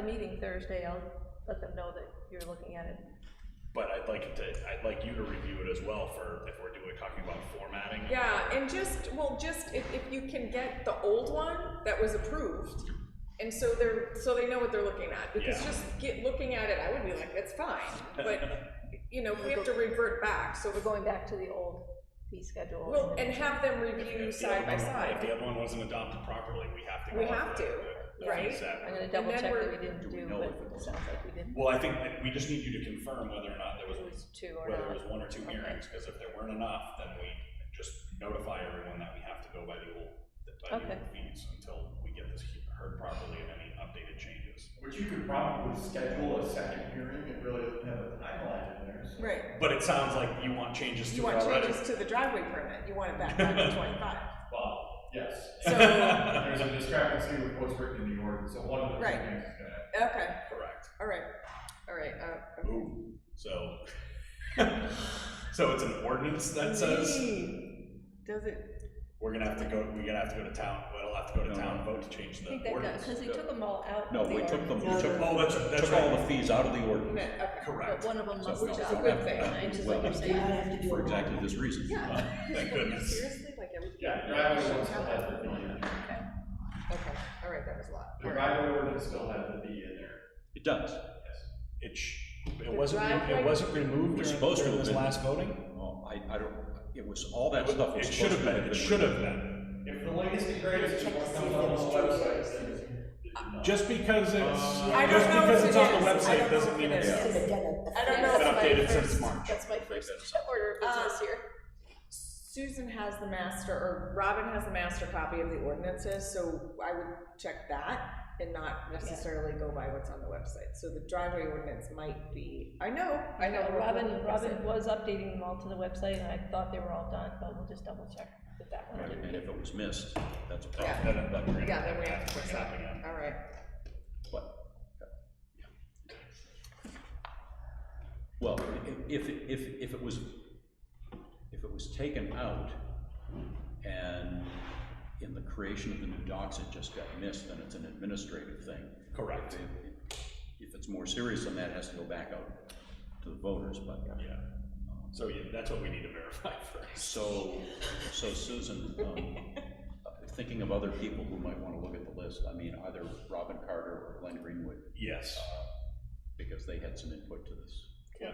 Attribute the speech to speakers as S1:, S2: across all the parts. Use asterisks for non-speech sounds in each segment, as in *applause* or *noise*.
S1: the meeting Thursday, I'll let them know that you're looking at it.
S2: But I'd like it to, I'd like you to review it as well for, if we're doing, talking about formatting.
S3: Yeah, and just, well, just if, if you can get the old one that was approved, and so they're, so they know what they're looking at, because
S2: Yeah.
S3: just get, looking at it, I would be like, that's fine, but,
S2: *laughs*
S3: you know, we have to revert back, so we're
S1: We're
S3: going,
S1: going back to the old fee schedule.
S3: well, and have them review
S2: If the
S3: side
S2: other
S3: by
S2: one- If
S3: side.
S2: the other one wasn't adopted properly, we have to. go
S3: We
S2: off
S3: have
S2: the-
S3: to,
S2: the
S3: right?
S2: fee set.
S1: I'm gonna double
S3: then
S1: check
S3: we're-
S1: that we didn't
S2: Do we
S1: do,
S2: know
S1: but
S2: if it
S1: it
S2: was-
S1: sounds like we didn't.
S2: Well, I think that we just need you to confirm whether or not there was,
S1: It was two or
S2: whether
S1: not.
S2: it was one or two hearings, because if there weren't enough, then we just notify everyone that we have to go by the old, by the
S1: Okay.
S2: old fees until we get this he- heard properly and any updated changes.
S4: Which you could probably schedule a second hearing, it really doesn't have a timeline in there, so.
S3: Right,
S2: But it sounds like you want changes
S3: you
S2: to it
S3: want
S2: already.
S3: changes to the driveway permit, you want it back
S2: *laughs*
S3: down to twenty-five,
S4: Well, yes,
S3: so,
S4: *laughs* there's a discrepancy with what's written in the ordinance, so one of the two
S3: Right.
S4: things is gonna.
S3: okay,
S2: Correct.
S3: all right, all right, uh, okay.
S2: Ooh, so. *laughs* So it's an ordinance that says
S3: Does it,
S2: we're gonna have to go, we're gonna have to go to town, we'll have to go to town, vote to change
S1: I
S2: the
S1: think that got,
S2: ordinance.
S1: because we took them all out. of
S5: No,
S1: the
S5: we took them, we
S1: ordinance.
S5: took,
S2: Oh, that's, that's
S5: took all
S2: right,
S5: the fees out of the ordinance.
S3: okay, okay.
S2: correct,
S1: But one of them must.
S5: So-
S1: have
S3: a good thing,
S1: Which is
S5: Well,
S1: like you're saying.
S5: For exactly this reason.
S2: thank goodness.
S3: Seriously, like everything?
S4: Yeah, driveway one still has the fee in there,
S3: Okay, all right, that was a lot.
S4: the driveway ordinance still has the fee in there,
S5: It does.
S4: yes.
S2: It sh, it wasn't, re-
S1: driveway-
S2: it wasn't
S5: It
S2: removed
S5: was
S2: during,
S5: supposed to
S2: during
S5: have
S2: this
S5: been.
S2: last voting?
S5: Well, Oh, I, I don't, it was, all that stuff was
S2: It should
S5: supposed to
S2: have been, it should have been,
S4: If the latest and greatest is what comes on the website, then it's.
S2: just because
S5: Uh,
S2: it's,
S3: I
S2: just
S3: don't know
S2: because
S3: if
S2: it's
S3: it
S2: on the
S3: is. I don't
S2: website
S3: know
S2: doesn't
S3: if
S2: mean
S3: it
S2: it's. *laughs*
S3: is. I don't know.
S2: Been
S3: if
S2: updated
S3: my
S2: since
S3: first-
S2: March.
S1: That's my first order of
S3: Uh,
S1: business here.
S3: Susan has the master, or Robin has the master copy of the ordinances, so I would check that and not necessarily go by what's on the website. So the driveway ordinance might be, I know, I know.
S1: Yeah,
S3: we're-
S1: Robin,
S3: we're-
S1: Robin was updating them all to the website, and I thought they were all done, but we'll just double check that that one
S5: Right,
S1: didn't.
S5: and if it was missed, that's a
S3: Yeah.
S5: problem. That- that-
S3: Yeah, then we have to fix that,
S2: Happening.
S3: all right.
S5: But- Well, i- if, if, if it was, if it was taken out and in the creation of the new docs, it just got missed, then it's an administrative thing.
S2: Correct.
S5: If- If it's more serious than that, it has to go back out to the voters, but,
S2: Yeah, so yeah, that's what we need to verify *laughs* first.
S5: so, so Susan, um, thinking of other people who might wanna look at the list, I mean, either Robin Carter or Glenn Greenwood,
S2: Yes,
S5: because they had some input to this.
S2: yeah,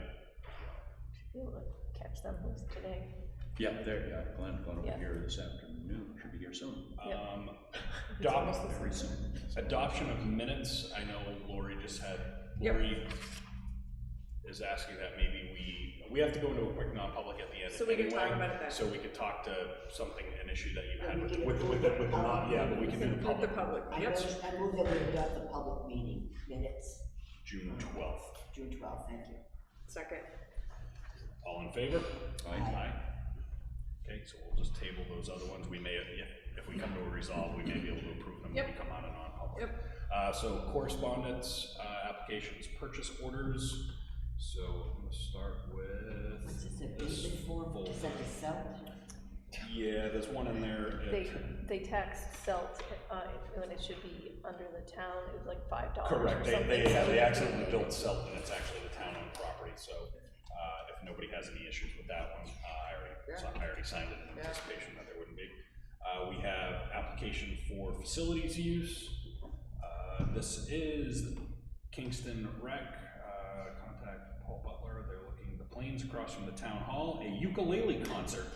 S1: Be able to Catch them today.
S5: Yeah, there, yeah, Glenn, Glenn will be
S1: Yeah.
S5: here this afternoon, should be here soon,
S1: Yep.
S2: um,
S3: *laughs*
S1: almost
S2: doc,
S1: the
S5: very soon.
S2: Adoption of minutes, I know Lori just had,
S3: Yep.
S2: Lori is asking that maybe we, we have to go into a quick non-public at the end
S3: So we can talk
S2: anyway,
S3: about it then.
S2: So we could talk to something, an issue that you had with, with, with, the- with the non, yeah, but we can do the
S3: With the
S2: public,
S3: public,
S6: I
S3: yep,
S6: move, I move that we adopt the public meeting minutes,
S2: June twelfth.
S6: June twelfth, thank you.
S3: second.
S2: All in favor?
S5: Aye.
S2: Okay, so we'll just table those other ones, we may, yeah, if we come to a resolve, we may be able to approve them when we
S3: Yep.
S2: come out of non-public.
S3: Yep.
S2: Uh, so correspondence, uh, applications, purchase orders, so I'm gonna start with.
S6: What's this, a
S2: this
S6: payment form,
S2: folder.
S6: is that the cell?
S2: Yeah, there's one in there. It-
S1: They, they taxed Selt, uh, when it should be under the town, it was like five dollars or
S2: Correct, they,
S1: something.
S2: they,
S1: so
S2: they
S1: we-
S2: accidentally built Selton, it's actually the town-owned property, so, uh, if nobody has any issues with that one, uh, I already, so I already signed it in
S3: Yeah.
S2: anticipation that there wouldn't be. Uh, we have application for facilities use, uh, this is Kingston Rec, uh, contact Paul Butler, they're looking, the planes across from the town hall, a ukulele concert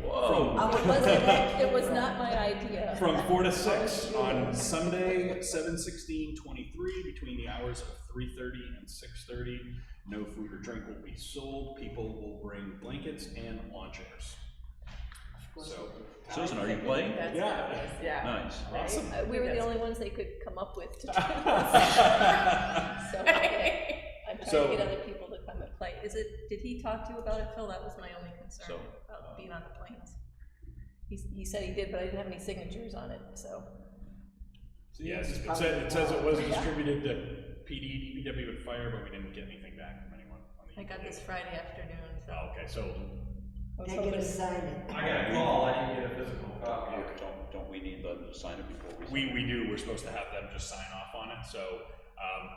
S5: Whoa.
S1: It wasn't that- it was not my idea.
S2: *laughs* from four to six on Sunday, seven sixteen twenty-three, between the hours of three thirty and six thirty. No food or drink will be sold, people will bring blankets and lawn chairs. So,
S5: Susan, are you playing?
S2: yeah,
S3: Yeah.
S5: Nice.
S2: *laughs* awesome.
S1: Uh, We were the only ones they could come up with to do
S2: *laughs*
S1: this, so,
S3: *laughs*
S1: okay. I'm trying
S2: So-
S1: to get other people to come and play. Is it, did he talk to you about it, Phil? That was my only concern,
S5: So,
S2: uh,
S1: about being on the planes. He, s- he said he did, but I didn't have any signatures on it, so.
S2: Yes, it says, it says it was distributed to PD, DPW and fire, but we didn't get anything back from anyone. on the
S1: I got
S2: email.
S1: this Friday afternoon, so.
S2: Oh, Okay, so,
S1: I was
S6: Can I
S1: hoping-
S6: get a sign it?
S4: I got a call, I didn't get a physical copy.
S5: Don't, don't Uh, we need them to sign it before we?
S2: we, we do, we're supposed to have them just sign off on it, so Um,